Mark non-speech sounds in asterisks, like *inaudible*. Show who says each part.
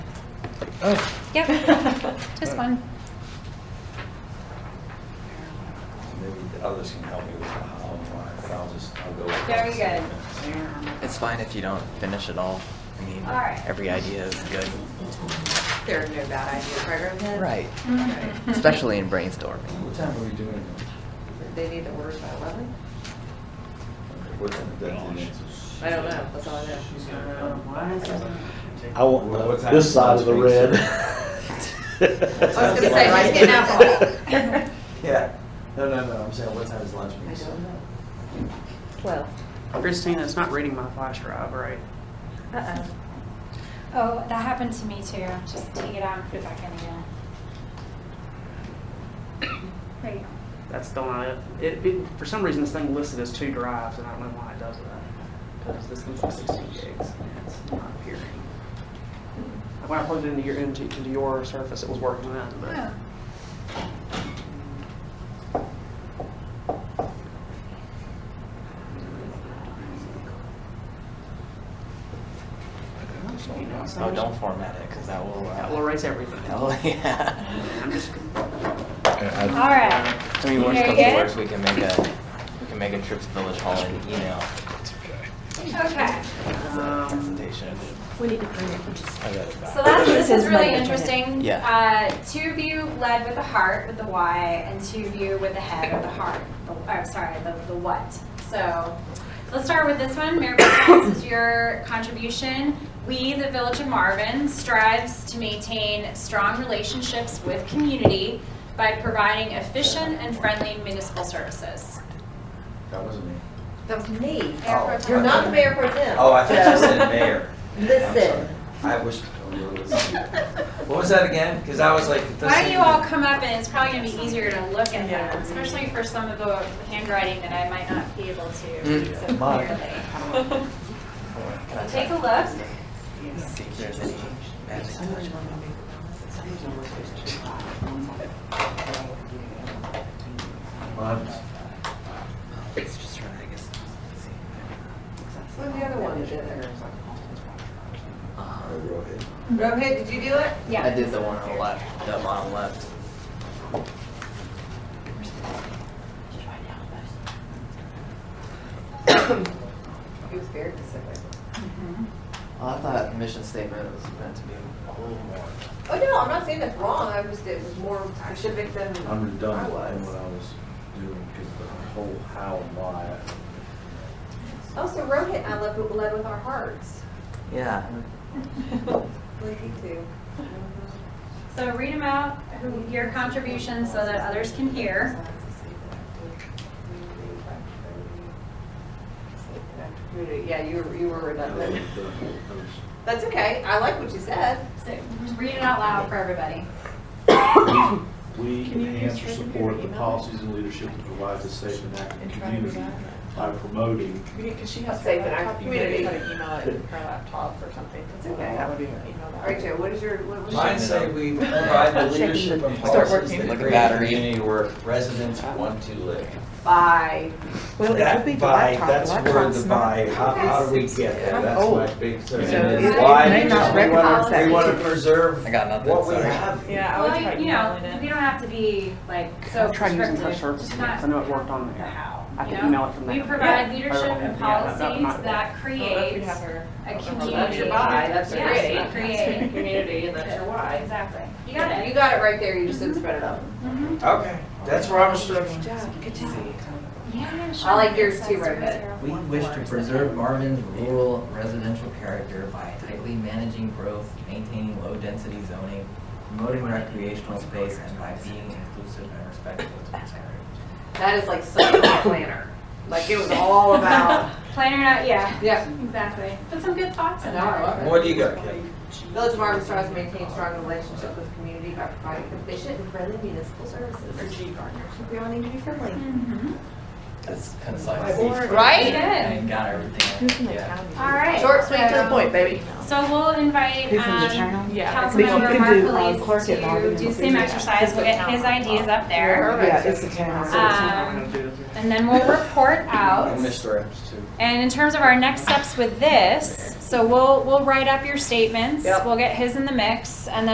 Speaker 1: Oh,
Speaker 2: Yep, just one.
Speaker 3: Maybe the others can help me with how, but I'll just, I'll go. with
Speaker 2: Very
Speaker 3: this.
Speaker 2: good.
Speaker 1: it's fine if you don't finish it all. I mean,
Speaker 2: All right.
Speaker 1: every idea is good.
Speaker 4: There are no bad ideas, right,
Speaker 2: *laughs*
Speaker 4: Rohit?
Speaker 1: Right.
Speaker 4: Right.
Speaker 1: Especially in brainstorming.
Speaker 3: What time are we doing? it?
Speaker 4: They need the orders by eleven?
Speaker 3: Okay, What's the deadline?
Speaker 4: I don't know, that's all I know.
Speaker 5: I want
Speaker 3: Well, what's
Speaker 5: the- this side of the
Speaker 3: happening?
Speaker 5: red.
Speaker 6: *laughs*
Speaker 4: I was gonna say, let's get alcohol.
Speaker 3: Yeah, no, no, no, I'm saying what time is lunch?
Speaker 4: I
Speaker 3: meeting?
Speaker 4: don't know. Twelve.
Speaker 6: Christina, it's not *laughs* reading my flash drive, right?
Speaker 4: Uh-oh.
Speaker 2: Oh, that happened to me too. Just take it out and put it back in again. There you go.
Speaker 6: That's still not it. It, it- for some reason, this thing listed as two drives, and I don't know why it does that. Because this one's like sixteen gigs, and it's not appearing. When I plugged it into your, into, into your Surface, it was working then, but. You know, it's
Speaker 1: Oh,
Speaker 6: not-
Speaker 1: don't format it, because that will. uh,
Speaker 6: That will *laughs* erase everything.
Speaker 1: Oh, yeah.
Speaker 6: I'm just,
Speaker 2: All right.
Speaker 1: I mean, worst
Speaker 2: Very
Speaker 1: comes to
Speaker 2: good.
Speaker 1: worst, we can make a, we can make a Trips Village Hall and email
Speaker 2: Okay.
Speaker 6: um,
Speaker 1: presentation.
Speaker 7: We need to print it, which is
Speaker 1: I got it back.
Speaker 2: So that's, this is
Speaker 7: Says
Speaker 2: really
Speaker 7: Monday.
Speaker 2: interesting.
Speaker 1: Yeah.
Speaker 2: Uh, two view led with the heart, with the why, and two view with the head of the heart. The, oh, sorry, the, the what. So let's start with this one. Mayor Pro Tem, this is your contribution. We, the Village of Marvin, strives to maintain strong relationships with community by providing efficient and friendly municipal services.
Speaker 3: That wasn't me.
Speaker 4: That was me.
Speaker 2: Mayor Pro Tem.
Speaker 4: You're not the mayor pro tem.
Speaker 3: Oh, I thought you
Speaker 4: *laughs*
Speaker 3: said mayor. I'm
Speaker 4: Listen.
Speaker 3: sorry. I wish. What was that again? Because I was like. it
Speaker 2: Why don't
Speaker 3: doesn't
Speaker 2: you
Speaker 3: even-
Speaker 2: all come up and it's probably gonna be easier to look at
Speaker 4: Yeah.
Speaker 2: them, especially for some of the handwriting that I might not be able
Speaker 1: Mm,
Speaker 2: to read so
Speaker 3: Mine.
Speaker 2: clearly.
Speaker 1: Can I
Speaker 2: So take a look.
Speaker 1: See if there's any magic touch.
Speaker 3: Well,
Speaker 1: It's just trying, I guess. see.
Speaker 4: What's the other one that did there?
Speaker 1: Uh-huh.
Speaker 3: I wrote it.
Speaker 4: Rohit, did you do it?
Speaker 2: Yeah.
Speaker 1: I did the one on the left, the bottom left.
Speaker 4: He was very specific.
Speaker 1: Well, Oh, I thought mission statement was meant to be a little more.
Speaker 4: Oh, no, I'm not saying that's wrong, I was, it was more specific than I
Speaker 3: I'm done with what
Speaker 4: was.
Speaker 3: I was doing because the whole how and why.
Speaker 4: Also, Rohit and I led, led with our hearts,
Speaker 1: Yeah.
Speaker 4: like you two.
Speaker 2: So read them out, who- your contributions so that others can hear.
Speaker 4: Yeah, you were, you were
Speaker 3: I wrote
Speaker 4: redundant.
Speaker 3: the whole post.
Speaker 4: That's okay, I like what you said.
Speaker 2: So read it out loud for everybody.
Speaker 8: We enhance or support the policies and leadership that provides a safe and active community by promoting
Speaker 7: Because she has.
Speaker 4: Safe and
Speaker 7: a
Speaker 4: active
Speaker 7: laptop, you
Speaker 4: community.
Speaker 7: maybe try to email it in her laptop or something.
Speaker 4: It's okay.
Speaker 6: that would be,
Speaker 7: Email
Speaker 4: All
Speaker 7: that.
Speaker 4: right, Joe, what is your, what was your?
Speaker 3: Mine say we provide the
Speaker 7: Shaking.
Speaker 3: leadership and
Speaker 7: Start
Speaker 3: policies that
Speaker 7: working.
Speaker 1: Like a
Speaker 3: create a
Speaker 1: battery.
Speaker 3: community where residents want to live.
Speaker 4: Bye.
Speaker 7: Well, it would
Speaker 3: That
Speaker 7: be the
Speaker 3: by,
Speaker 7: laptop.
Speaker 3: that's where
Speaker 7: Laptop's
Speaker 3: the
Speaker 7: not-
Speaker 3: by, how, how do we get there?
Speaker 7: I'm
Speaker 3: That's my
Speaker 7: old.
Speaker 3: big concern.
Speaker 7: So
Speaker 3: And
Speaker 2: it-
Speaker 3: it's
Speaker 2: it
Speaker 3: why,
Speaker 2: may
Speaker 7: not
Speaker 3: we
Speaker 7: recognize
Speaker 3: wanna,
Speaker 7: that.
Speaker 3: we wanna preserve
Speaker 1: I got nothing,
Speaker 3: what we
Speaker 1: sorry.
Speaker 3: have.
Speaker 7: Yeah, I would
Speaker 2: Well,
Speaker 7: try
Speaker 2: you know,
Speaker 7: emailing
Speaker 2: you
Speaker 7: it.
Speaker 2: don't have to be like so
Speaker 6: I tried using
Speaker 2: prescriptive.
Speaker 6: touch surfaces,
Speaker 2: Just
Speaker 6: I
Speaker 2: not
Speaker 6: know it worked on
Speaker 2: the
Speaker 6: there.
Speaker 2: how,
Speaker 6: I
Speaker 2: you
Speaker 6: can
Speaker 2: know?
Speaker 6: email it from there.
Speaker 2: We provide
Speaker 6: Yeah.
Speaker 2: leadership and
Speaker 6: Yeah, that- that
Speaker 2: policies
Speaker 6: might-
Speaker 2: that
Speaker 7: Well, if you
Speaker 2: create
Speaker 7: have her-
Speaker 2: a community.
Speaker 4: That's your bye, that's your
Speaker 2: Yes,
Speaker 4: great.
Speaker 2: create.
Speaker 4: Community, and that's your why.
Speaker 2: *laughs* Exactly. You got it.
Speaker 4: You got it right there, you just didn't spread it out.
Speaker 2: Mhm.
Speaker 3: Okay, that's where I was struggling.
Speaker 7: Good to see you.
Speaker 2: Yeah,
Speaker 4: I like
Speaker 2: sure.
Speaker 4: yours
Speaker 2: Six,
Speaker 4: too,
Speaker 2: zero,
Speaker 4: Rohit.
Speaker 2: zero,
Speaker 9: We
Speaker 2: one,
Speaker 9: wish
Speaker 2: four,
Speaker 9: to
Speaker 2: seven.
Speaker 9: preserve Marvin's rural residential character by tightly managing growth, maintaining low-density zoning, promoting recreational space, and by being inclusive and respectful to its area.
Speaker 4: That is like such a planner. Like it was all about,
Speaker 2: Planner out, yeah,
Speaker 4: yeah.
Speaker 2: exactly. Put some good thoughts in
Speaker 4: No, I
Speaker 2: there.
Speaker 4: love it.
Speaker 3: What do you got, Kate?
Speaker 4: Village of Marvin strives to maintain strong relationships with community by providing efficient and friendly municipal services. Or G Gardner. We all need to be friendly.
Speaker 2: Mhm.
Speaker 1: That's concise.
Speaker 2: You
Speaker 4: Right?
Speaker 2: did.
Speaker 1: And got everything.
Speaker 7: Who's in the
Speaker 1: Yeah.
Speaker 7: county?
Speaker 2: All right.
Speaker 4: Short, sweet, to the point, baby.
Speaker 2: So we'll invite
Speaker 7: Who's in the
Speaker 2: um,
Speaker 7: journal? Yeah, I think you
Speaker 2: Councilmember
Speaker 7: can do, um,
Speaker 2: Mark
Speaker 7: clerk at Marvin
Speaker 2: Felice to do
Speaker 7: and
Speaker 2: same
Speaker 7: see.
Speaker 2: exercise. We'll get his ideas up there.
Speaker 7: Yeah, it's the town.
Speaker 6: So it's not
Speaker 2: Um,
Speaker 6: gonna do it.
Speaker 2: And then we'll report out.
Speaker 3: I missed Rams too.
Speaker 2: And in terms of our next steps with this, so we'll, we'll write up your statements.
Speaker 4: Yep.
Speaker 2: We'll get his in the mix and then